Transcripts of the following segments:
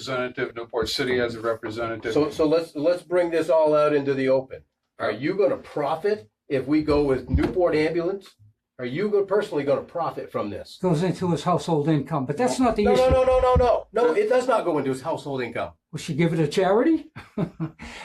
representative, Newport City has a representative. So, so let's, let's bring this all out into the open. Are you gonna profit if we go with Newport ambulance? Are you go- personally gonna profit from this? goes into his household income, but that's not the No, no, issue. no, no, no, no, no, it does not go into his household income. Will she give it to charity?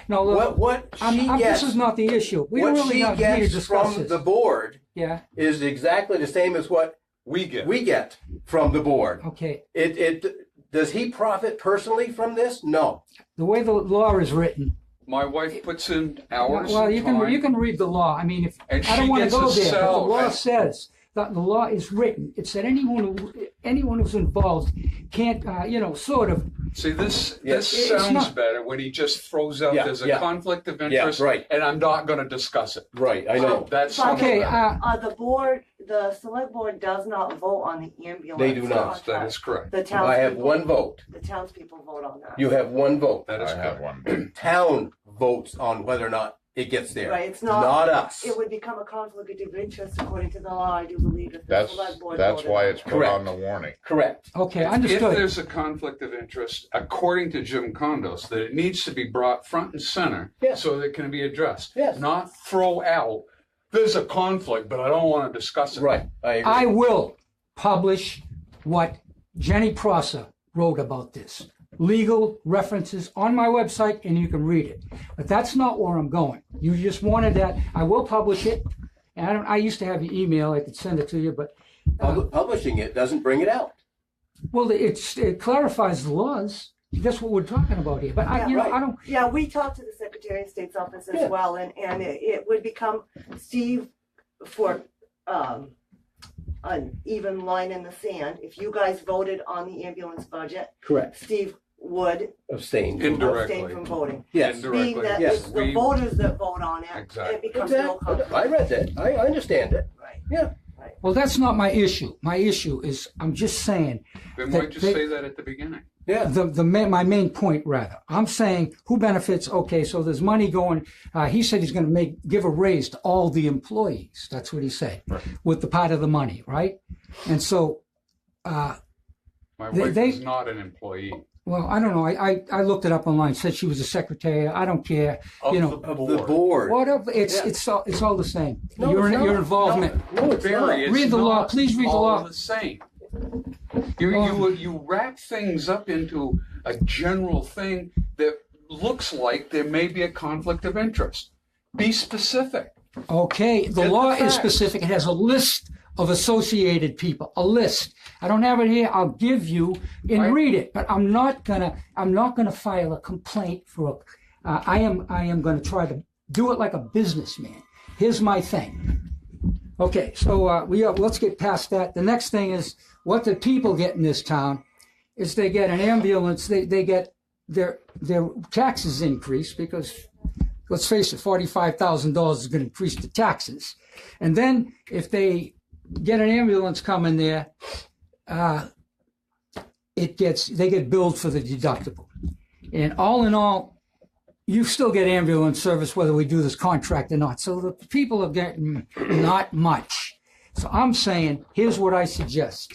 no, look, What, what I'm- she I'm- gets, this is not the issue. We don't what really she not need to gets discuss from this. the board yeah, is exactly the same as what We get. we get from the board. okay. It, it, does he profit personally from this? No. The way the law is written. My wife puts in hours Well, you of can time. you can read the law. I mean, if And I she don't want to gets a go there, but the cell. law says that the law is written. It said anyone who anyone who's involved can't, uh, you know, sort of. See, this, Yes. this It's sounds not- better when he just throws out, Yeah, there's a yeah. conflict of interest. right. And I'm not gonna discuss it. Right, I So That's. something Okay, that- uh, Uh, the board, the select board does not vote on the ambulance. They do not. contract. That is correct. The I have one townspeople, vote. the townspeople vote on that. You have one vote. That is I have correct. one. Town votes on whether or not it gets there. Right, it's not- Not us. It would become a conflict of interest according to the law, I do believe, if the That's, select board that's voted why on it's it. put on the warning. Correct. okay, If understood. there's a conflict of interest, according to Jim Condos, that it needs to be brought front and center Yes. so that it can be addressed. Yes. Not throw out, there's a conflict, but I don't want to discuss it. Right, I agree. I will publish what Jenny Prosser wrote about this. Legal references on my website and you can read it. But that's not where I'm going. You just wanted that. I will publish it. And I, don't, I used to have your email. I could send it to you, but Pub- Publishing it doesn't bring it out. well, it's, it clarifies the laws. That's what we're talking about here. But I, you know, I don't. Yeah, we talked to the Secretary of State's office Yeah. as well, and, and it, it would become Steve for, um, an even line in the sand. If you guys voted on the ambulance budget, Correct. Steve would Abstain. Indirectly. abstain from voting. Yes. Indirectly. Being that Yes. it's the We- voters that vote on it, Exactly. it becomes no Exactly. I conflict. read that. I I understand it. Right. Yeah. Well, that's not my issue. My issue is I'm just saying Then They- why'd you they- say that at the beginning? Yeah. the, the ma- my main point rather i'm saying who benefits okay so there's money going uh, he said he's going to make give a raise to all the employees that's what he said with the part of the money right and so uh, My They- wife they- is not an employee. well i don't know I, I i looked it up online said she was a secretary i don't care Of you the know Of the board. whatever it's Yeah. it's all it's all the same No, your it's not. your involvement No, no, it's Barry, not. it's Read the law. not Please read the all law. Oh. The same. You, you you wrap things up into a general thing that looks like there may be a conflict of interest. Be specific. Okay, the Get the law facts. is specific. It has a list of associated people, a list. I don't have it here. I'll give you and Right. read it, but I'm not gonna. I'm not gonna file a complaint for. A, uh, I am. I am gonna try to do it like a businessman. Here's my thing. Okay, so uh, we are, let's get past that. The next thing is what the people get in this town is they get an ambulance. They they get their their taxes increase because let's face it, forty-five thousand dollars is going to increase the taxes. And then if they get an ambulance coming there, uh, it gets they get billed for the deductible. And all in all, you still get ambulance service whether we do this contract or not. So the people are getting not much. So I'm saying, here's what I suggest.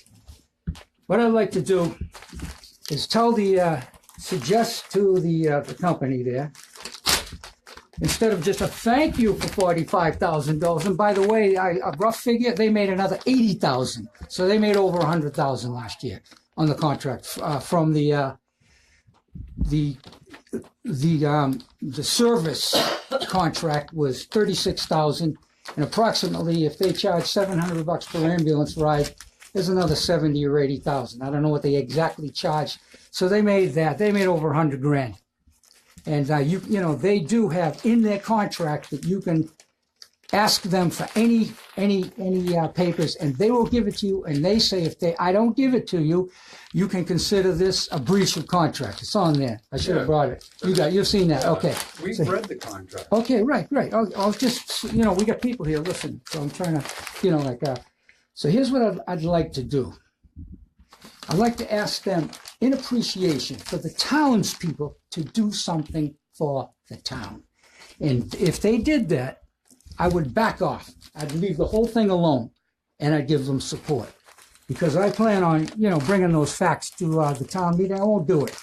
What I'd like to do is tell the uh, suggest to the uh, the company there instead of just a thank you for forty-five thousand dollars. And by the way, I, a rough figure, they made another eighty thousand. So they made over a hundred thousand last year on the contract uh, from the uh, the the um, the service contract was thirty-six thousand, and approximately if they charge seven hundred bucks per ambulance ride. There's another seventy or eighty thousand. I don't know what they exactly charge. So they made that. They made over a hundred grand. And uh, you, you know, they do have in their contract that you can ask them for any, any, any uh, papers, and they will give it to you. And they say if they, I don't give it to you, you can consider this a breach of contract. It's on there. I should Yeah. have brought it. You got, you've seen that. Okay. We've read the contract. Okay, right, right. I'll, I'll just, you know, we got people here, listen, so I'm trying to, you know, like, uh, so here's what I'd, I'd like to do. I'd like to ask them, in appreciation, for the townspeople to do something for the town. And if they did that, I would back off. I'd leave the whole thing alone and I'd give them support. Because I plan on, you know, bringing those facts to, uh, the town meeting. I won't do it.